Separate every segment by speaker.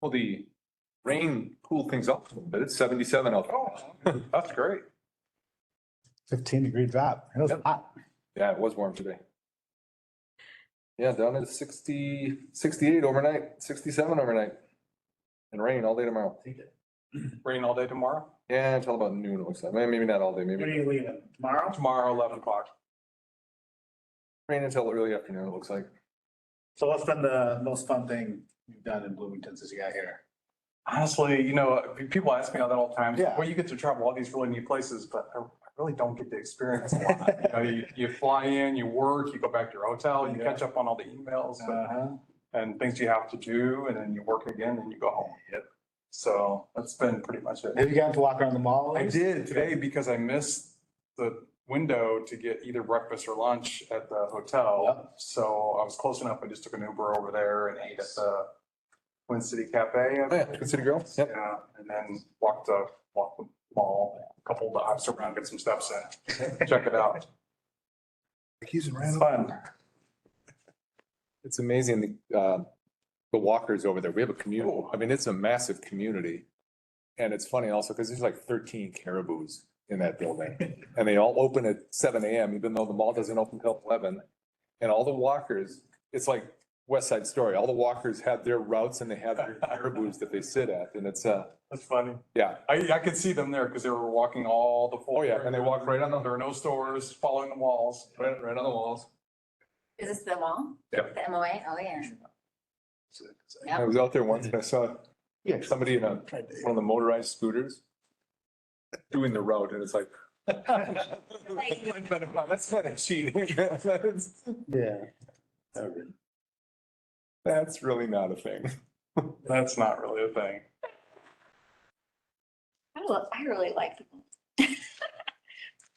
Speaker 1: Well, the rain cooled things off a little bit. It's seventy-seven out. there. That's great.
Speaker 2: Fifteen degree drop. It was
Speaker 1: Yep.
Speaker 2: hot.
Speaker 1: Yeah, it was warm today. Yeah, down at 60, 68 overnight, sixty-seven overnight. And rain all day tomorrow.
Speaker 3: Rain all day tomorrow?
Speaker 1: Yeah, until about noon, it looks like. Maybe not all day,
Speaker 4: When are
Speaker 1: maybe
Speaker 4: you leaving? Tomorrow?
Speaker 3: Tomorrow, eleven o'clock.
Speaker 1: rain until early afternoon, it looks like.
Speaker 4: So what's been the most fun thing you've done in Bloomington since you got here?
Speaker 3: Honestly, you know, people ask me all that all the time.
Speaker 4: Yeah.
Speaker 3: Well, you get to travel all these really neat places, but I I really don't get to experience a lot. You know, You, you fly in, you work, you go back to your hotel, you
Speaker 4: Yeah.
Speaker 3: catch up on all the emails and-
Speaker 4: Uh-huh.
Speaker 3: and things you have to do, and then you work again, and you go home.
Speaker 4: Yep.
Speaker 3: So that's been pretty much it.
Speaker 4: Have you gotten to walk around the mall? at
Speaker 3: I
Speaker 4: least?
Speaker 3: did today because I missed the window to get either breakfast or lunch at the hotel. So I was close enough. I just took an Uber over there and ate at the Twin City Cafe. I
Speaker 1: Oh, yeah,
Speaker 3: think.
Speaker 1: Twin City Grill. Yep.
Speaker 3: Yeah, and then walked the, walked the mall, a couple of hops around, get some steps in, check it out.
Speaker 2: He's
Speaker 3: It's fun.
Speaker 1: It's amazing, the, uh, the walkers over there. We have a community. I mean, it's a massive community. And it's funny also because there's like thirteen caribous in that building. And they all open at seven AM, even though the mall doesn't open till eleven. And all the walkers, it's like West Side Story. All the walkers have their routes and they have their caribous that they sit at. And it's, uh,
Speaker 3: That's funny.
Speaker 1: yeah,
Speaker 3: I, I could see them there because they were walking all the.
Speaker 1: Oh, yeah, and they walk right on the-
Speaker 3: There are no stores, following the walls.
Speaker 1: right, right on the walls.
Speaker 5: Is this the wall?
Speaker 1: Yep.
Speaker 5: The MOA? Oh, yeah.
Speaker 1: I was out there once and I saw
Speaker 2: Yeah.
Speaker 1: somebody in a, one of the motorized scooters doing the route and it's like. That's kind of cheating.
Speaker 2: Yeah.
Speaker 1: That's really not a thing.
Speaker 3: That's not really a thing.
Speaker 5: I love, I really like the wall.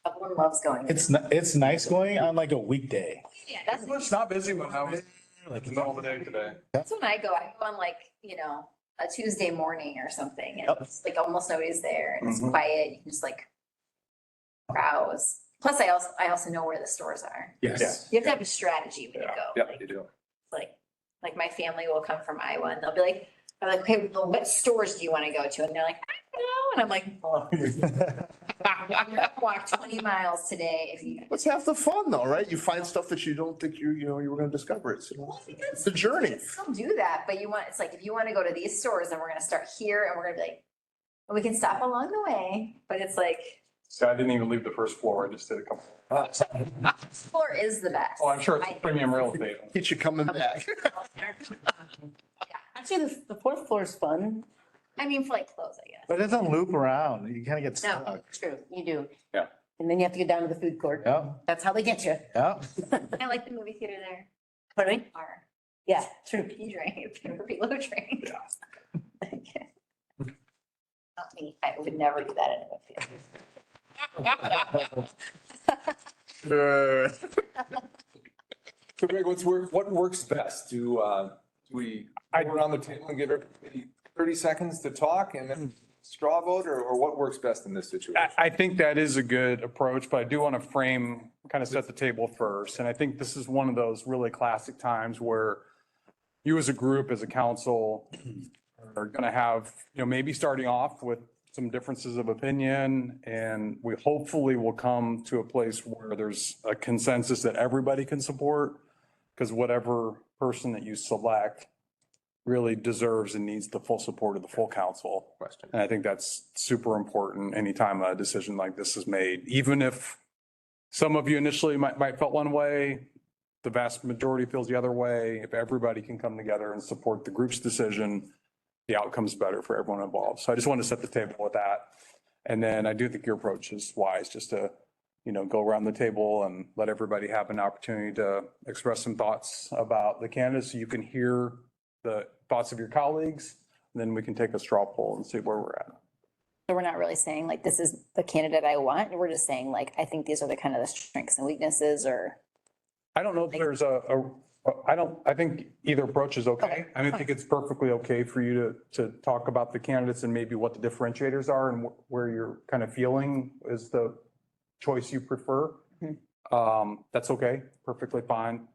Speaker 5: Everyone loves going. there.
Speaker 4: It's, ni- it's nice going on like a weekday.
Speaker 5: Yeah, that's,
Speaker 3: It's not busy when I was in the middle of the day today.
Speaker 5: that's when I go. I go on like, you know, a Tuesday morning or something and
Speaker 4: Yep.
Speaker 5: it's like almost nobody's there and it's
Speaker 3: Mhm.
Speaker 5: quiet. You can just like browse. Plus I also, I also know where the stores are.
Speaker 4: Yes.
Speaker 5: You have to have a strategy when you go.
Speaker 1: Yeah,
Speaker 5: Like,
Speaker 1: you do.
Speaker 5: like, like my family will come from Iowa and they'll be like, I'm like, okay, well, what stores do you want to go to? And they're like, I don't know. And I'm like, I'm gonna walk twenty miles today if you.
Speaker 6: Let's have the fun though, right? You find stuff that you don't think you, you know, you were gonna discover. It's, you know,
Speaker 5: Well, I think that's-
Speaker 6: it's a journey.
Speaker 5: Still do that, but you want, it's like, if you want to go to these stores, then we're gonna start here and we're gonna be like, and we can stop along the way, but it's like,
Speaker 3: See, I didn't even leave the first floor. I just did a couple.
Speaker 5: floor is the best.
Speaker 3: Oh, I'm sure it's
Speaker 5: I-
Speaker 3: premium real estate.
Speaker 6: Get you coming back.
Speaker 7: Actually, the, the fourth floor is fun.
Speaker 5: I mean, for like clothes, I guess.
Speaker 4: But it doesn't loop around. You kind of get
Speaker 7: No,
Speaker 4: stuck.
Speaker 7: true, you do.
Speaker 1: Yeah.
Speaker 7: And then you have to go down to the food court.
Speaker 4: Yeah,
Speaker 7: That's how they get you.
Speaker 4: yeah.
Speaker 5: I like the movie theater there.
Speaker 7: Pardon? me?
Speaker 5: Bar.
Speaker 7: Yeah, true.
Speaker 5: You drink, you below drink. Not me, I would never do that in a movie theater.
Speaker 6: Uh,
Speaker 1: So Greg, what's work, what works best? Do, uh, do we go around the table and give everybody thirty seconds to talk and then straw vote or, or what works best in this situation?
Speaker 3: I, I think that is a good approach, but I do want to frame, kind of set the table first. And I think this is one of those really classic times where you as a group, as a council, are going to have, you know, maybe starting off with some differences of opinion. And we hopefully will come to a place where there's a consensus that everybody can support. Because whatever person that you select really deserves and needs the full support of the full council.
Speaker 1: Question.
Speaker 3: And I think that's super important anytime a decision like this is made, even if some of you initially might, might felt one way, the vast majority feels the other way. If everybody can come together and support the group's decision, the outcome's better for everyone involved. So I just want to set the table with that. And then I do think your approach is wise, just to, you know, go around the table and let everybody have an opportunity to express some thoughts about the candidates. so You can hear the thoughts of your colleagues then we can take a straw poll and see where we're at.
Speaker 5: So we're not really saying like, this is the candidate I want. We're just saying like, I think these are the kind of the strengths and weaknesses or.
Speaker 3: I don't know if there's a, a, I don't, I think either approach is okay. I mean, I think it's perfectly okay for you to, to talk about the candidates and maybe what the differentiators are and wh- where you're kind of feeling is the choice you prefer. Um, that's okay, perfectly fine.